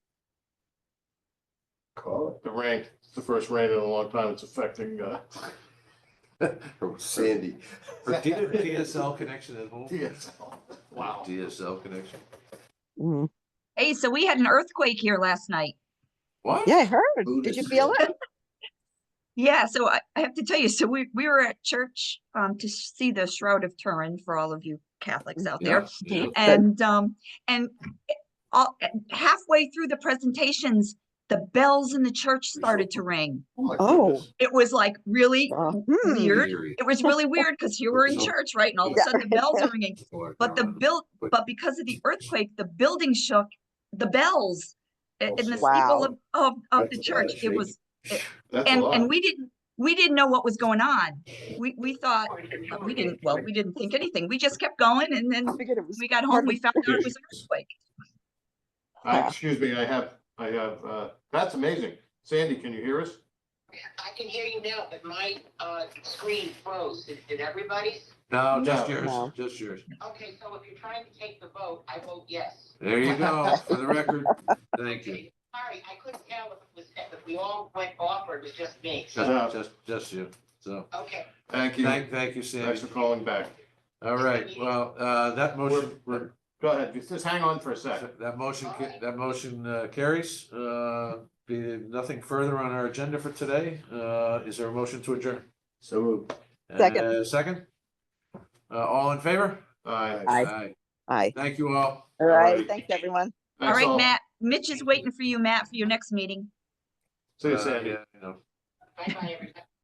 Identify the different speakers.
Speaker 1: call
Speaker 2: the rain, it's the first rain in a long time, it's affecting, uh,
Speaker 1: it. From Sandy.
Speaker 3: Her D- DSL connection at home.
Speaker 2: DSL. Wow.
Speaker 3: DSL connection.
Speaker 4: Mm.
Speaker 5: Hey, so we had an earthquake here last night.
Speaker 3: What?
Speaker 4: Yeah, I heard.
Speaker 1: Who
Speaker 4: Did you
Speaker 1: dis-
Speaker 4: feel it?
Speaker 5: Yeah, so I, I have to tell you, so we, we were at church, um, to see the Shroud of Turin for all of you Catholics out there.
Speaker 3: Yeah, yeah.
Speaker 5: And, um, and it- all, halfway through the presentations, the bells in the church started to ring.
Speaker 2: my
Speaker 4: Oh.
Speaker 2: goodness.
Speaker 5: It was like really
Speaker 4: Uh, hmm.
Speaker 5: weird.
Speaker 3: Eerie.
Speaker 5: It was really weird because you were in
Speaker 3: Yeah.
Speaker 5: church, right? And all of a
Speaker 4: Yeah.
Speaker 5: sudden the bells are ringing.
Speaker 2: Oh
Speaker 5: But the build,
Speaker 3: But-
Speaker 5: but because of the earthquake, the building shook, the bells i-
Speaker 1: Oh,
Speaker 5: in the
Speaker 4: Wow.
Speaker 5: steeple of, of, of
Speaker 1: That's a
Speaker 5: the
Speaker 1: lot
Speaker 5: church,
Speaker 1: of
Speaker 5: it was,
Speaker 2: That's a
Speaker 5: and,
Speaker 2: lot.
Speaker 5: and we didn't, we didn't know what was going on. We, we thought, uh, we didn't, well, we didn't think anything. We just kept going and then
Speaker 4: I figured it was.
Speaker 5: we
Speaker 4: part
Speaker 5: got home,
Speaker 4: of
Speaker 5: we found out it was an earthquake.
Speaker 2: I,
Speaker 4: Yeah.
Speaker 2: excuse me, I have, I have, uh, that's amazing. Sandy, can you hear us?
Speaker 6: I can hear you now, but my uh, screen froze. Did- Did everybody?
Speaker 3: No, just
Speaker 2: No.
Speaker 3: yours,
Speaker 4: No.
Speaker 3: just yours.
Speaker 6: Okay, so if you're trying to take the vote, I vote yes.
Speaker 3: There you go, for the record. Thank you.
Speaker 6: Okay, Sorry, I couldn't tell if it was, if we all went off or it was just me.
Speaker 3: Just, just, just you. So,
Speaker 6: Okay.
Speaker 2: Thank you.
Speaker 3: thank, thank you,
Speaker 2: Thanks
Speaker 3: Sandy.
Speaker 2: for calling back.
Speaker 3: All right, well, uh, that motion, we're,
Speaker 2: Go ahead, just- just hang on for a second.
Speaker 3: That motion, ca- that motion uh, carries. Uh, Be nothing further on our agenda for today. Uh, Is there a motion to adjourn?
Speaker 1: So moved.
Speaker 4: Second.
Speaker 3: Uh, Second? Uh, All in favor?
Speaker 2: All
Speaker 4: Aye. Aye.
Speaker 3: Thank you all.
Speaker 4: All
Speaker 2: Alright.
Speaker 4: right. Thanks, everyone.
Speaker 5: All right, Matt, Mitch is waiting for you, Matt, for your next meeting.
Speaker 2: See you,
Speaker 3: Uh,
Speaker 2: Sandy.
Speaker 3: yeah, I know.
Speaker 6: Bye-bye, everybody.